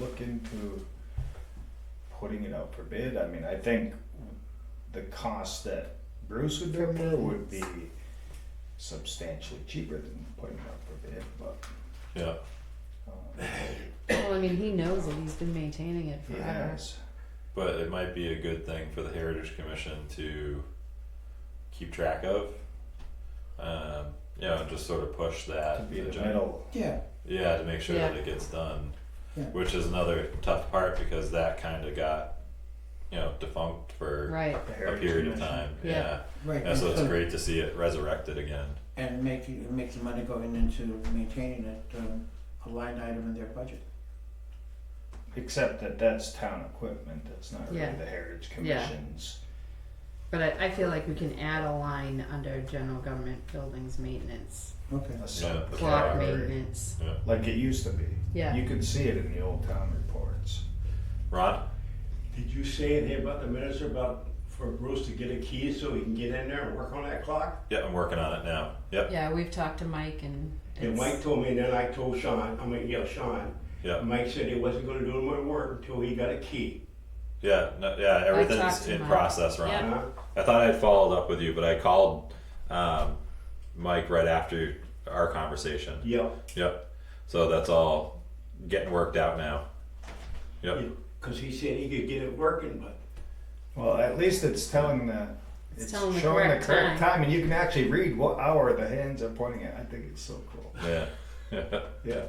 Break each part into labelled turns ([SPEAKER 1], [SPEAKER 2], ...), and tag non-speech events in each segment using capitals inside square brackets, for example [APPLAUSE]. [SPEAKER 1] look into putting it out for bid? I mean, I think the cost that Bruce would
[SPEAKER 2] For
[SPEAKER 1] incur would be
[SPEAKER 2] maintenance.
[SPEAKER 1] substantially cheaper than putting it out for bid, but,
[SPEAKER 3] Yeah,
[SPEAKER 1] um,
[SPEAKER 2] Well, I mean, he knows it. He's been maintaining it
[SPEAKER 1] he
[SPEAKER 2] forever.
[SPEAKER 1] has,
[SPEAKER 3] but it might be a good thing for the Heritage Commission to keep track of. Um, you know, and just sort of push that.
[SPEAKER 1] to be the
[SPEAKER 3] agenda.
[SPEAKER 1] middle,
[SPEAKER 4] Yeah,
[SPEAKER 3] Yeah, to make sure that
[SPEAKER 2] Yeah.
[SPEAKER 3] it gets done.
[SPEAKER 4] Yeah.
[SPEAKER 3] Which is another tough part because that kinda got, you know, defunct for
[SPEAKER 2] Right.
[SPEAKER 1] the
[SPEAKER 3] a
[SPEAKER 1] Heritage
[SPEAKER 3] period of
[SPEAKER 1] Commission.
[SPEAKER 3] time,
[SPEAKER 2] Yeah.
[SPEAKER 3] yeah.
[SPEAKER 4] right.
[SPEAKER 3] And so it's
[SPEAKER 4] and-
[SPEAKER 3] great to see it resurrected again.
[SPEAKER 4] And make, make the money going into maintaining it, um, a line item in their budget.
[SPEAKER 1] Except that that's town equipment, that's not really
[SPEAKER 2] Yeah.
[SPEAKER 1] the Heritage
[SPEAKER 2] Yeah.
[SPEAKER 1] Commission's.
[SPEAKER 2] But I, I feel like we can add a line under general government buildings maintenance,
[SPEAKER 4] Okay,
[SPEAKER 1] asset.
[SPEAKER 3] The
[SPEAKER 2] clock
[SPEAKER 3] library.
[SPEAKER 2] maintenance.
[SPEAKER 1] Like it used to be.
[SPEAKER 2] Yeah.
[SPEAKER 1] You could see it in the old town reports.
[SPEAKER 3] Ron,
[SPEAKER 5] Did you say anything about the minutes about for Bruce to get a key so he can get in there and work on that clock?
[SPEAKER 3] yeah, I'm working on it now, yep,
[SPEAKER 2] Yeah, we've talked to Mike and.
[SPEAKER 5] And
[SPEAKER 2] it's-
[SPEAKER 5] Mike told me, and then I told Sean, I mean, yeah, Sean.
[SPEAKER 3] yeah,
[SPEAKER 5] Mike said he wasn't gonna do any more work until he got a key.
[SPEAKER 3] yeah, no, yeah,
[SPEAKER 2] talked
[SPEAKER 3] everything's
[SPEAKER 2] to
[SPEAKER 3] in
[SPEAKER 2] Mike.
[SPEAKER 3] process, Ron.
[SPEAKER 2] Yeah.
[SPEAKER 5] Huh?
[SPEAKER 3] I thought I'd followed up with you, but I called um, Mike right after our conversation.
[SPEAKER 5] Yeah,
[SPEAKER 3] Yep. So that's all getting worked out now. Yep.
[SPEAKER 5] yeah, cause he said he could get it working, but
[SPEAKER 1] Well, at least it's telling the,
[SPEAKER 2] It's
[SPEAKER 1] it's
[SPEAKER 2] telling the
[SPEAKER 1] showing the
[SPEAKER 2] correct
[SPEAKER 1] correct time and you can actually read what hour the hands are pointing at. I think it's so cool.
[SPEAKER 3] Yeah. [LAUGHS]
[SPEAKER 1] Yeah.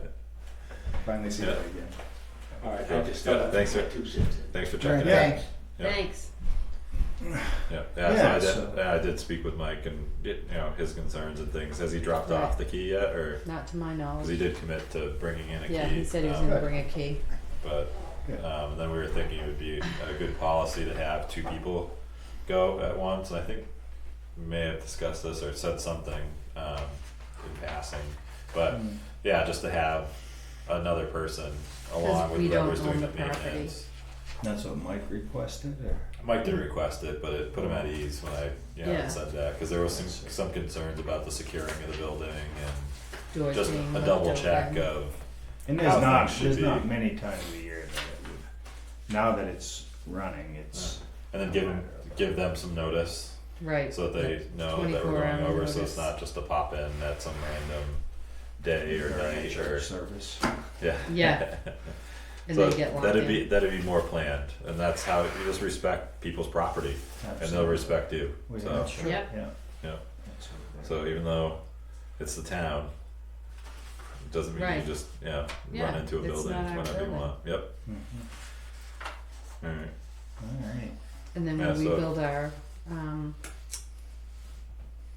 [SPEAKER 1] Finally see that again.
[SPEAKER 5] alright,
[SPEAKER 3] Yeah,
[SPEAKER 5] I just
[SPEAKER 3] yeah,
[SPEAKER 5] thought.
[SPEAKER 3] thanks, sir.
[SPEAKER 5] Two cents.
[SPEAKER 3] Thanks for
[SPEAKER 4] right,
[SPEAKER 3] checking it out.
[SPEAKER 4] thanks.
[SPEAKER 3] Yeah.
[SPEAKER 2] Thanks.
[SPEAKER 3] Yeah. Yeah.
[SPEAKER 1] Yeah,
[SPEAKER 3] so I
[SPEAKER 1] so-
[SPEAKER 3] did. yeah, I did speak with Mike and it, you know his concerns and things. Has he dropped off the key yet, or
[SPEAKER 2] Not to my
[SPEAKER 3] because he
[SPEAKER 2] knowledge.
[SPEAKER 3] did commit to bringing in a
[SPEAKER 2] Yeah,
[SPEAKER 3] key?
[SPEAKER 2] he said he was
[SPEAKER 3] um,
[SPEAKER 2] gonna bring a key.
[SPEAKER 3] But
[SPEAKER 1] Yeah.
[SPEAKER 3] um, and then we were thinking it would be a good policy to have two people go at once. And I think we may have discussed this or said something um, in passing, but
[SPEAKER 1] Mm.
[SPEAKER 3] yeah, just to have another person along with
[SPEAKER 2] we don't
[SPEAKER 3] whoever's doing
[SPEAKER 2] own
[SPEAKER 3] the
[SPEAKER 2] the property.
[SPEAKER 3] maintenance.
[SPEAKER 1] That's what Mike requested or?
[SPEAKER 3] Mike did request it, but it put him at ease when I you know,
[SPEAKER 2] Yeah.
[SPEAKER 3] said that because there was some some concerns about the securing of the building and
[SPEAKER 2] Doors
[SPEAKER 3] just
[SPEAKER 2] being
[SPEAKER 3] a
[SPEAKER 2] left
[SPEAKER 3] double check
[SPEAKER 2] open.
[SPEAKER 3] uh, of
[SPEAKER 1] And there's
[SPEAKER 3] How
[SPEAKER 1] not,
[SPEAKER 3] things should
[SPEAKER 1] there's
[SPEAKER 3] be.
[SPEAKER 1] not many times a year that it would, now that it's running, it's,
[SPEAKER 3] and then give 'em- give them some notice
[SPEAKER 2] Right,
[SPEAKER 3] So that they know that
[SPEAKER 2] 24
[SPEAKER 3] we're going
[SPEAKER 2] hour
[SPEAKER 3] over, so
[SPEAKER 2] notice.
[SPEAKER 3] it's not just a pop in at some random day or night or,
[SPEAKER 1] service.
[SPEAKER 3] yeah. [LAUGHS]
[SPEAKER 2] yeah. And
[SPEAKER 3] So
[SPEAKER 2] they get locked
[SPEAKER 3] that'd be,
[SPEAKER 2] in.
[SPEAKER 3] that'd be more planned, and that's how, you just respect people's property, and they'll respect you,
[SPEAKER 1] We-
[SPEAKER 3] so,
[SPEAKER 1] that's true.
[SPEAKER 2] Yep.
[SPEAKER 1] Yeah.
[SPEAKER 3] Yeah.
[SPEAKER 1] That's what it is.
[SPEAKER 3] so even though it's the town, it doesn't mean you
[SPEAKER 2] Right.
[SPEAKER 3] just, yeah, run
[SPEAKER 2] Yeah,
[SPEAKER 3] into a
[SPEAKER 2] it's
[SPEAKER 3] building
[SPEAKER 2] not our
[SPEAKER 3] whenever you
[SPEAKER 2] building.
[SPEAKER 3] want, yep,
[SPEAKER 1] Mhm.
[SPEAKER 3] alright,
[SPEAKER 1] All right.
[SPEAKER 2] And then
[SPEAKER 3] Yeah,
[SPEAKER 2] when we
[SPEAKER 3] so-
[SPEAKER 2] build our, um,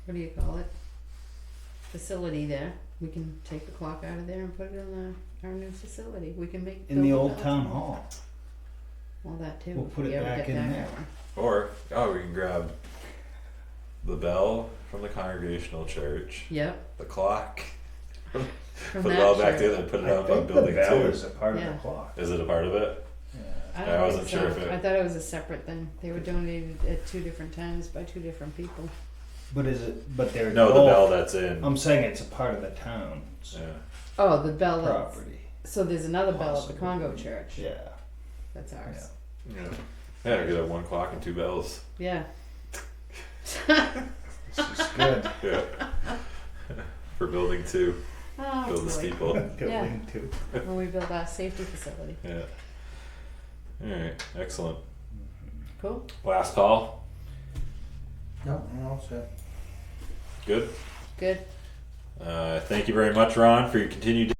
[SPEAKER 2] what do you call it? Facility there, we can take the clock out of there and put it in the, our new facility, we can make.
[SPEAKER 1] In the
[SPEAKER 2] build
[SPEAKER 1] old
[SPEAKER 2] it up.
[SPEAKER 1] town hall.
[SPEAKER 2] Well, that too.
[SPEAKER 1] We'll
[SPEAKER 2] if
[SPEAKER 1] put
[SPEAKER 2] we
[SPEAKER 1] it
[SPEAKER 2] ever
[SPEAKER 1] back
[SPEAKER 2] get
[SPEAKER 1] in
[SPEAKER 2] that
[SPEAKER 1] there.
[SPEAKER 2] going.
[SPEAKER 3] or, oh, we can grab the bell from the congregational church,
[SPEAKER 2] Yep,
[SPEAKER 3] the clock,
[SPEAKER 2] from
[SPEAKER 3] put it all
[SPEAKER 2] that
[SPEAKER 3] back
[SPEAKER 2] church.
[SPEAKER 3] together, put it
[SPEAKER 1] I
[SPEAKER 3] up on
[SPEAKER 1] think the
[SPEAKER 3] building two.
[SPEAKER 1] bell is a part of the
[SPEAKER 2] Yeah.
[SPEAKER 1] clock.
[SPEAKER 3] Is it a part of it?
[SPEAKER 1] Yeah.
[SPEAKER 2] I
[SPEAKER 3] I
[SPEAKER 2] don't
[SPEAKER 3] wasn't
[SPEAKER 2] think
[SPEAKER 3] sure
[SPEAKER 2] so.
[SPEAKER 3] if it-
[SPEAKER 2] I thought it was a separate thing, they were donated at two different times by two different people.
[SPEAKER 1] But is it, but they're
[SPEAKER 3] No, the
[SPEAKER 1] both-
[SPEAKER 3] bell that's in.
[SPEAKER 1] I'm saying it's a part of the town's
[SPEAKER 3] yeah.
[SPEAKER 2] Oh, the bell, that's-
[SPEAKER 1] property.
[SPEAKER 2] so there's another bell at the
[SPEAKER 1] Possibly.
[SPEAKER 2] Congo church,
[SPEAKER 1] Yeah.
[SPEAKER 2] that's ours,
[SPEAKER 3] Yeah. Yeah, we could have one clock and two bells.
[SPEAKER 2] yeah,
[SPEAKER 1] This is good.
[SPEAKER 3] Yeah. [LAUGHS] For building two,
[SPEAKER 2] oh boy.
[SPEAKER 3] build the steeple.
[SPEAKER 1] Building two.
[SPEAKER 2] When we build our safety facility,
[SPEAKER 3] Yeah. All right. Excellent.
[SPEAKER 2] cool,
[SPEAKER 3] Last call.
[SPEAKER 4] No, I'm all set.
[SPEAKER 3] Good.
[SPEAKER 2] good.
[SPEAKER 3] Uh, thank you very much, Ron, for your continued.